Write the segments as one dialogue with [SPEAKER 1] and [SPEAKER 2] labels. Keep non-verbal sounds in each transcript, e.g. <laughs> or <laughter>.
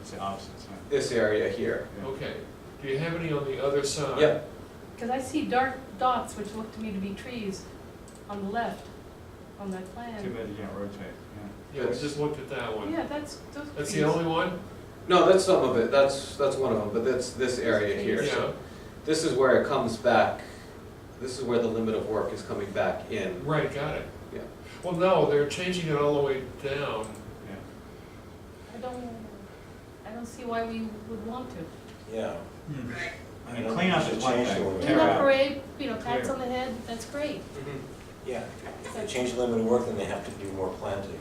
[SPEAKER 1] It's the opposite side.
[SPEAKER 2] this area here.
[SPEAKER 3] Okay, do you have any on the other side?
[SPEAKER 2] Yep,
[SPEAKER 4] Because I see dark dots, which look to me to be trees, on the left, on that
[SPEAKER 1] Too
[SPEAKER 4] plan.
[SPEAKER 1] bad you can't rotate,
[SPEAKER 3] Yeah, we just looked at that one.
[SPEAKER 4] Yeah, that's, those trees.
[SPEAKER 3] That's the only one?
[SPEAKER 2] no, that's some of it, that's, that's one of them, but that's this area here.
[SPEAKER 3] Yeah,
[SPEAKER 2] This is where it comes back, this is where the limit of work is coming back in.
[SPEAKER 3] right, got it.
[SPEAKER 2] Yeah.
[SPEAKER 3] Well, no, they're changing it all the way down.
[SPEAKER 1] yeah,
[SPEAKER 4] I don't, I don't see why we would want to.
[SPEAKER 5] Yeah.
[SPEAKER 1] yeah. I mean, cleanup is one thing,
[SPEAKER 5] Yeah.
[SPEAKER 4] In
[SPEAKER 1] tear
[SPEAKER 4] that
[SPEAKER 1] out,
[SPEAKER 4] parade, you know, pats on the head, that's great.
[SPEAKER 3] Mm-hmm.
[SPEAKER 5] Yeah, if they change the limit of work, then they have to do more plantings,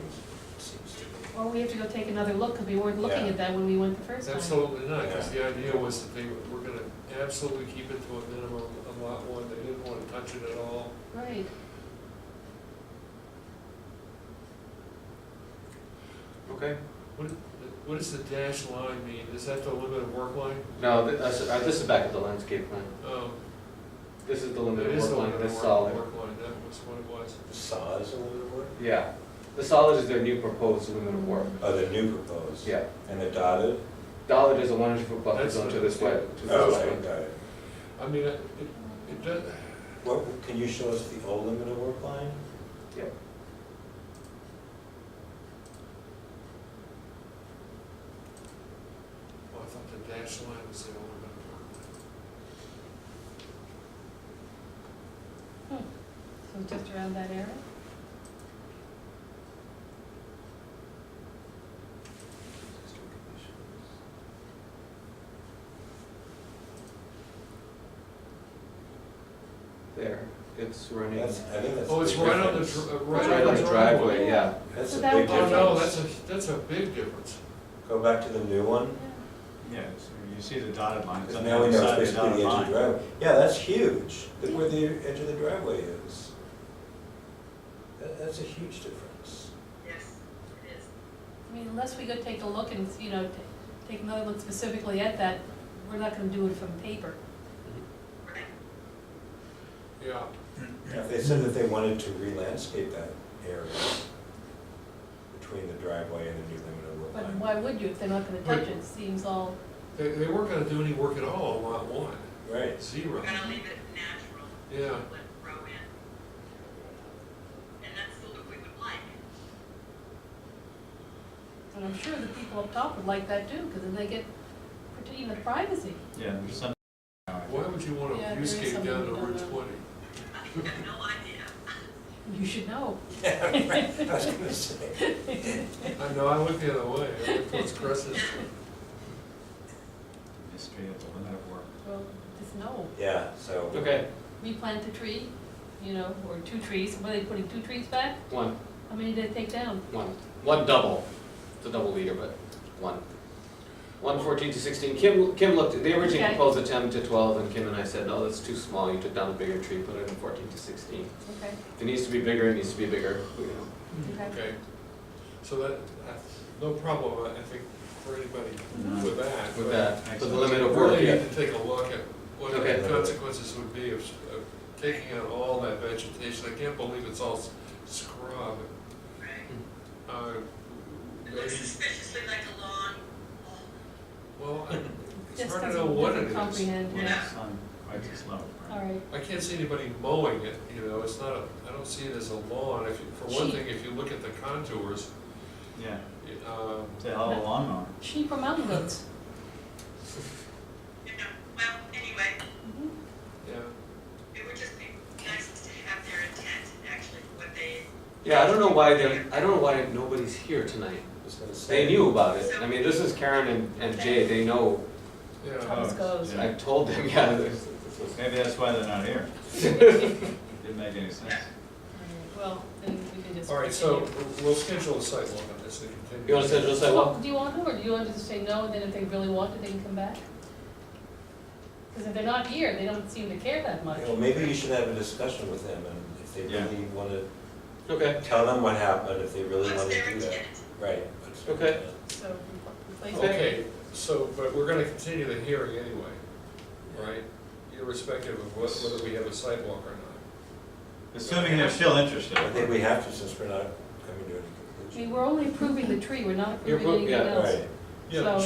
[SPEAKER 5] it seems to me.
[SPEAKER 4] Or we have to go take another look, because we weren't looking
[SPEAKER 5] Yeah.
[SPEAKER 4] at that when we went the first time.
[SPEAKER 3] Absolutely not, because the idea was that they were gonna absolutely keep it to a minimum of lot one, they didn't wanna touch it at all.
[SPEAKER 4] Right.
[SPEAKER 2] Okay,
[SPEAKER 3] What, what does the dash line mean? Is that the limit of work line?
[SPEAKER 2] now, thi- this, uh, this is back at the landscape plan,
[SPEAKER 3] Um,
[SPEAKER 2] this is the
[SPEAKER 3] It
[SPEAKER 2] limit
[SPEAKER 3] is
[SPEAKER 2] of
[SPEAKER 3] the
[SPEAKER 2] work
[SPEAKER 3] limit
[SPEAKER 2] line,
[SPEAKER 3] of
[SPEAKER 2] this
[SPEAKER 3] work-
[SPEAKER 2] solid.
[SPEAKER 3] work line, that was what it was.
[SPEAKER 5] The sod is a limit of work?
[SPEAKER 2] Yeah, the solid is their new proposed limit of work,
[SPEAKER 5] Oh, the new proposed?
[SPEAKER 2] yeah.
[SPEAKER 5] And the dotted?
[SPEAKER 2] Dollar is a one hundred foot buffer
[SPEAKER 3] That's
[SPEAKER 2] zone to
[SPEAKER 3] what-
[SPEAKER 2] this way, to
[SPEAKER 5] Oh,
[SPEAKER 2] this
[SPEAKER 5] okay,
[SPEAKER 2] way.
[SPEAKER 5] got it.
[SPEAKER 3] I mean, it, it it does,
[SPEAKER 5] What, can you show us the old limit of work line?
[SPEAKER 2] Yep.
[SPEAKER 3] well, I thought the dash line was the only one.
[SPEAKER 4] So just around that area?
[SPEAKER 2] There, it's running.
[SPEAKER 5] That's, I think that's.
[SPEAKER 3] Oh, it's
[SPEAKER 5] the
[SPEAKER 3] right on the,
[SPEAKER 5] difference.
[SPEAKER 3] dr- uh,
[SPEAKER 2] It's
[SPEAKER 3] right
[SPEAKER 2] right on the driveway, yeah.
[SPEAKER 5] That's
[SPEAKER 4] So
[SPEAKER 5] a
[SPEAKER 4] that
[SPEAKER 5] big
[SPEAKER 4] one-
[SPEAKER 3] Oh,
[SPEAKER 5] difference.
[SPEAKER 3] no, that's a, that's a big difference.
[SPEAKER 5] Go back to the new one,
[SPEAKER 4] Yeah.
[SPEAKER 1] yeah, so you see the dotted line, it's
[SPEAKER 5] because
[SPEAKER 1] on the
[SPEAKER 5] now we
[SPEAKER 1] other
[SPEAKER 5] know
[SPEAKER 1] side
[SPEAKER 5] it's
[SPEAKER 1] of the
[SPEAKER 5] basically
[SPEAKER 1] dotted
[SPEAKER 5] the edge of the
[SPEAKER 1] line.
[SPEAKER 5] driveway. Yeah, that's huge, look where the edge of the driveway is. That, that's a huge difference.
[SPEAKER 6] Yes, it is.
[SPEAKER 4] I mean, unless we go take a look and, you know, ta- take another look specifically at that, we're not gonna do it from paper.
[SPEAKER 6] Right.
[SPEAKER 3] Yeah.
[SPEAKER 5] If they said that they wanted to re-landscape that area between the driveway and the new limit
[SPEAKER 4] But
[SPEAKER 5] of work line.
[SPEAKER 4] why would you if they're not gonna touch it? Seems all,
[SPEAKER 3] They, they weren't gonna do any work at all on lot one,
[SPEAKER 5] Right, <laughs>
[SPEAKER 3] zero.
[SPEAKER 6] We're gonna leave it natural,
[SPEAKER 3] Yeah,
[SPEAKER 6] let it grow in. And that's the look we would like. <laughs>
[SPEAKER 4] and I'm sure the people up top would like that too, because then they get, prote- you know, privacy.
[SPEAKER 1] Yeah, there's some.
[SPEAKER 3] why would you wanna
[SPEAKER 4] Yeah, there is
[SPEAKER 3] viewscape
[SPEAKER 4] something
[SPEAKER 3] down to
[SPEAKER 4] we don't
[SPEAKER 3] Route
[SPEAKER 4] know.
[SPEAKER 3] twenty?
[SPEAKER 6] I have no idea.
[SPEAKER 4] You should know.
[SPEAKER 5] yeah, right, I was gonna say.
[SPEAKER 3] I know, I went the other way, I went
[SPEAKER 4] <laughs>
[SPEAKER 3] towards Crescent.
[SPEAKER 1] History of the limit of work.
[SPEAKER 4] Well, just know.
[SPEAKER 5] Yeah, so.
[SPEAKER 2] Okay,
[SPEAKER 4] Replant a tree, you know, or two trees. Were they putting two trees back?
[SPEAKER 2] one,
[SPEAKER 4] How many did they take down?
[SPEAKER 2] one, one double, it's a double leader, but one. One fourteen to sixteen, Kim, Kim looked, they originally
[SPEAKER 4] Okay.
[SPEAKER 2] proposed a ten to twelve, and Kim and I said, no, that's too small, you took down the bigger tree, put it in fourteen to sixteen.
[SPEAKER 4] Okay,
[SPEAKER 2] If it needs to be bigger, it needs to be bigger, you know.
[SPEAKER 4] okay.
[SPEAKER 3] Okay, so that, that's no problem, I think, for anybody
[SPEAKER 1] No.
[SPEAKER 3] with that.
[SPEAKER 2] with
[SPEAKER 3] but
[SPEAKER 2] that, with the limit
[SPEAKER 3] we
[SPEAKER 2] of work,
[SPEAKER 3] Really
[SPEAKER 2] yeah.
[SPEAKER 3] need to take a look at what
[SPEAKER 2] Okay.
[SPEAKER 3] the consequences would be of, of taking out all that vegetation. I can't believe it's all s- scrub.
[SPEAKER 6] Right.
[SPEAKER 3] Uh,
[SPEAKER 6] It
[SPEAKER 3] maybe-
[SPEAKER 6] looks suspiciously like a lawn.
[SPEAKER 3] Well, I- it's
[SPEAKER 4] Just
[SPEAKER 3] hard to know
[SPEAKER 4] doesn't-
[SPEAKER 3] what
[SPEAKER 4] doesn't
[SPEAKER 3] it is.
[SPEAKER 4] Comprehend,
[SPEAKER 1] Well,
[SPEAKER 4] yeah.
[SPEAKER 1] it's on, right, it's low,
[SPEAKER 4] All
[SPEAKER 1] right?
[SPEAKER 4] right.
[SPEAKER 3] I can't see anybody mowing it, you know, it's not, a. I don't see it as a lawn. If, you- for one
[SPEAKER 4] Sheep.
[SPEAKER 3] thing, if you look at the contours,
[SPEAKER 4] Oh.
[SPEAKER 1] Yeah,
[SPEAKER 3] it, um,
[SPEAKER 1] it's a hell of a lawnmower.
[SPEAKER 4] Sheep or mountain goats?
[SPEAKER 6] Yeah, well, anyway,
[SPEAKER 4] Mhm.
[SPEAKER 3] yeah.
[SPEAKER 6] it would just be nice to have their intent, actually, what they.
[SPEAKER 2] Yeah, I don't know why they're, I don't know why nobody's here tonight.
[SPEAKER 5] Just gonna say-
[SPEAKER 2] They knew about it, I mean, this is Karen and, and Jay, they know,
[SPEAKER 3] Yeah,
[SPEAKER 4] Thomas goes.
[SPEAKER 1] Yeah.
[SPEAKER 2] I told them, <laughs> yeah, this, this was.
[SPEAKER 1] Maybe that's why they're not
[SPEAKER 4] <laughs>
[SPEAKER 1] here. Didn't make any sense.
[SPEAKER 4] All right, Well, then we can just.
[SPEAKER 3] all right, so
[SPEAKER 4] continue.
[SPEAKER 3] we'll schedule a site walk on this and continue.
[SPEAKER 2] You wanna schedule a sidewalk?
[SPEAKER 4] Well, Do you want to, or do you want to just say no, and then if they really want it, they can come back? Because if they're not here, they don't seem to care that much.
[SPEAKER 5] Well, maybe you should have a discussion with them, and if they
[SPEAKER 1] Yeah.
[SPEAKER 5] really wanna,
[SPEAKER 2] Okay,
[SPEAKER 5] tell them what happened, if they really
[SPEAKER 6] What's
[SPEAKER 5] wanna
[SPEAKER 6] their
[SPEAKER 5] do that.
[SPEAKER 6] intent?
[SPEAKER 5] Right. that's-
[SPEAKER 2] Okay.
[SPEAKER 4] So repl- replace it.
[SPEAKER 3] Okay, so, but we're gonna continue the hearing anyway, right? Irrespective of what- whether we have a sidewalk or not.
[SPEAKER 1] Assuming they're still interested.
[SPEAKER 5] I think we have to, since we're not coming to any
[SPEAKER 4] I mean,
[SPEAKER 5] conclusion.
[SPEAKER 4] we're only approving the tree, we're not
[SPEAKER 2] You're
[SPEAKER 4] approving
[SPEAKER 2] appro-
[SPEAKER 4] anything
[SPEAKER 2] yeah,
[SPEAKER 4] else.
[SPEAKER 5] Right.
[SPEAKER 4] So-